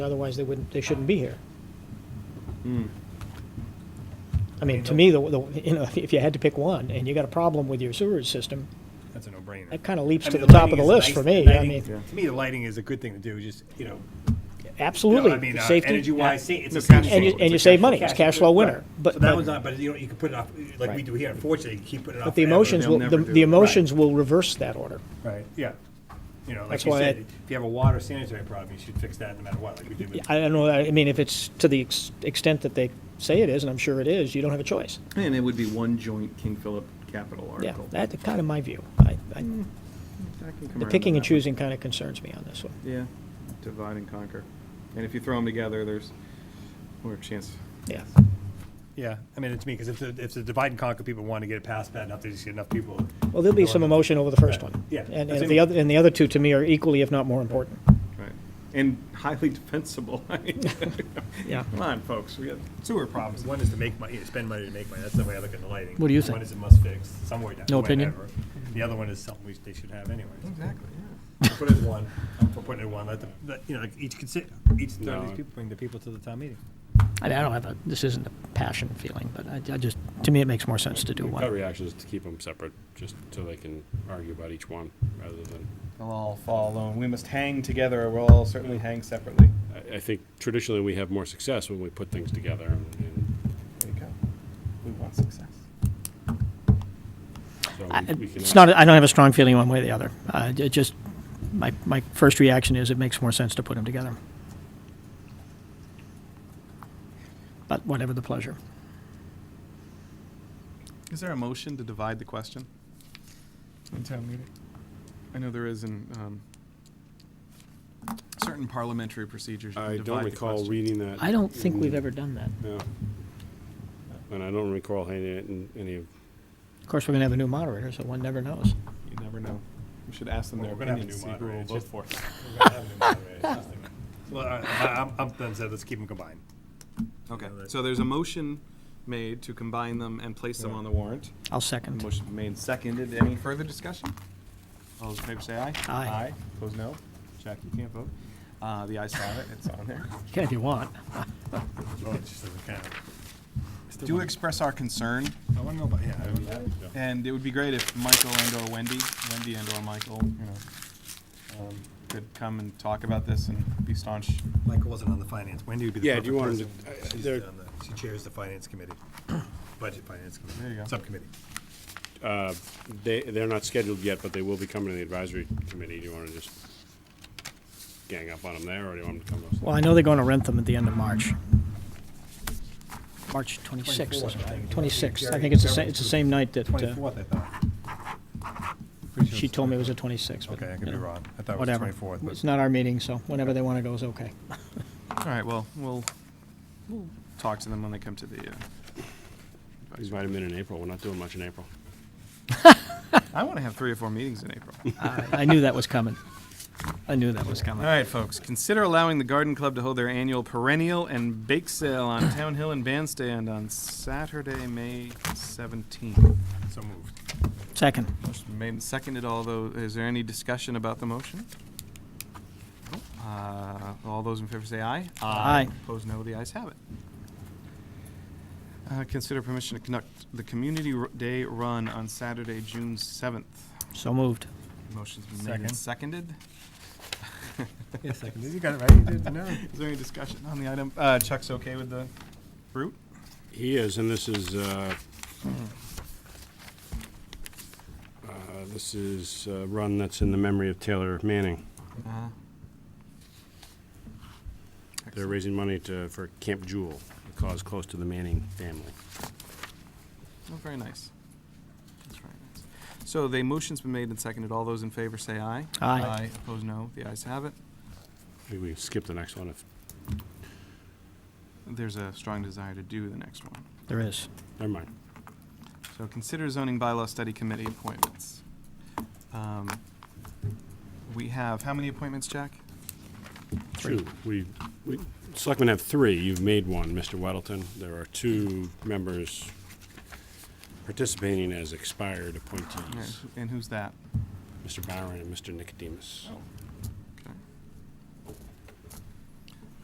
Otherwise, they wouldn't, they shouldn't be here. I mean, to me, the, the, you know, if- if you had to pick one and you got a problem with your sewerage system, That's a no-brainer. that kind of leaps I to mean, the top of lighting the is list nice- for the me. I lighting- mean, To me, the lighting is a good thing to do, just, you know, you know, I absolutely. mean, uh, Safety. energy-wise, sa- it's a And cash you- flow. and you It's a save cash- money. It's a cash flow winner. Right. But- So that but- one's not, but you know, you can put it off, like we Right. do here, unfortunately, you keep putting it off. But the forever. emotions will, the never do the it. emotions will reverse that order. Right, yeah. You know, like That's you why I- said, if you have a water sanitary problem, you should fix that no matter what, like we do with. I don't know, I mean, if it's to the ex- extent that they say it is, and I'm sure it is, you don't have a choice. And it would be one joint King Philip capital Yeah, article. that's kind of my view. I- I- Hmm. I can come The around picking and on that one. choosing kind of concerns me on this one. Yeah, divide and conquer. And if you throw them together, there's more chance. Yeah, Yeah, I mean, it's me, because if the, if the divide and conquer people want to get it past bad enough, they just get enough people. well, there'll be Go some on. emotion over the first Right. one. Yeah. And That's and it. the other, and the other two, to me, are equally, if not more important. Right. And highly defensible. I mean, Yeah. Come on, folks, we got, Sewer problems, one is to make money, spend money to make money, that's the way I look at the lighting. What do you think? One is a must fix, somewhere down. No opinion? whenever. The other one is something we, they should have anyways. exactly, Put it in one, I'm for putting it in one, let the, let- you know, like each consider, each third of No. these people bring the people to the town meeting. I mean, I don't have a, this isn't a passion feeling, but I, I just, to me, it makes more sense to do Gut one. reaction is to keep them separate, just so they can argue about each one, rather than, They'll all fall alone. We must hang together, or we'll all certainly hang separately. I, I think traditionally we have more success when we put things together, and There you go. We want success. so I- we- we can. It's not, I don't have a strong feeling one way or the other. Uh, it just, my, my first reaction is it makes more sense to put them together. But whatever the pleasure. Is there a motion to divide the question? In town meeting? I know there is in, um, certain parliamentary procedures. you can I don't divide the recall question. reading that. I don't think we've in- ever done that. No. And I don't recall having it in any of, Of course, we're going to have a new moderator, so one never knows. You never know. We should ask them Well, their we're gonna have a new opinion, see who moderator, will it's vote just- for. We're gonna have them anyway, it's just like- Well, I, I- I'm, I'm done, so let's keep them combined. Okay, Yeah, that- so there's a motion made to combine them and place them on the warrant. I'll A second. Motion made, and seconded. Any further discussion? All those in favor say aye. Aye. Aye. Opposed, no. Jack, you can't vote. Uh, the ayes have it. It's on there. Can if you want. Oh, it just doesn't count. Do express our concern, I wanna know about, yeah, I would have to. and it would be great if Michael and or Wendy, Wendy and or Michael, you know, um, could come and talk about this and be staunch. Michael wasn't on the finance, Wendy would be the Yeah, do you perfect want him person. to- I- I- She's there- on the- She chairs the finance committee, budget finance committee. There you go. Subcommittee. they, they're not scheduled yet, but they will be coming to the advisory committee. Do you want to just gang up on them there, or do you want them to come to us? Well, I know they're going to rent them at the end of March. March 26th, Twenty-fourth, I think. 26th. I think it's the same, it's the same night that uh, Twenty-fourth, I thought. she told me it was the 26th. but, Okay, I could you be know, wrong. I thought it was the Whatever. twenty-fourth, It's but not our meeting, so whenever they want to go is okay. All right, well, we'll talk to them when they come to the, uh, These might have been in April. We're not doing much in April. I want to have three or four meetings in April. I I knew that was coming. I knew that was All coming. right, folks, consider allowing the Garden Club to hold their annual perennial and bake sale on Town Hill and Bandstand on Saturday, May 17th. so moved. Second. Motion made and seconded, although, is there any discussion about the motion? Uh, All those in favor say aye. Aye. Opposed, no. The ayes have it. Uh, Consider permission to conduct the Community Ru- Day Run on Saturday, June 7th. So moved. Motion's been made and seconded. Yes, second. You got it right, you did, no. Is there any discussion on the item? Uh, Chuck's okay with the route? He is, and this is, uh, uh, this is a run that's in the memory of Taylor Manning. They're raising money to, for Camp Jewel, a cause close to the Manning family. Oh, very nice. That's very nice. So the motion's been made and seconded. All those in favor say aye. Aye. Opposed, no. The ayes have it. Maybe we skip the next one if, There's a strong desire to do the next one. There is. never mind. So consider zoning bylaw study committee appointments. Um, We have, how many appointments, Jack? Two, we, we, selectmen have three, you've made one, Mr. Weddleton. There are two members participating as expired Yeah, appointees, who- And who's that? Mr. Byron and Mr. Nicodemus.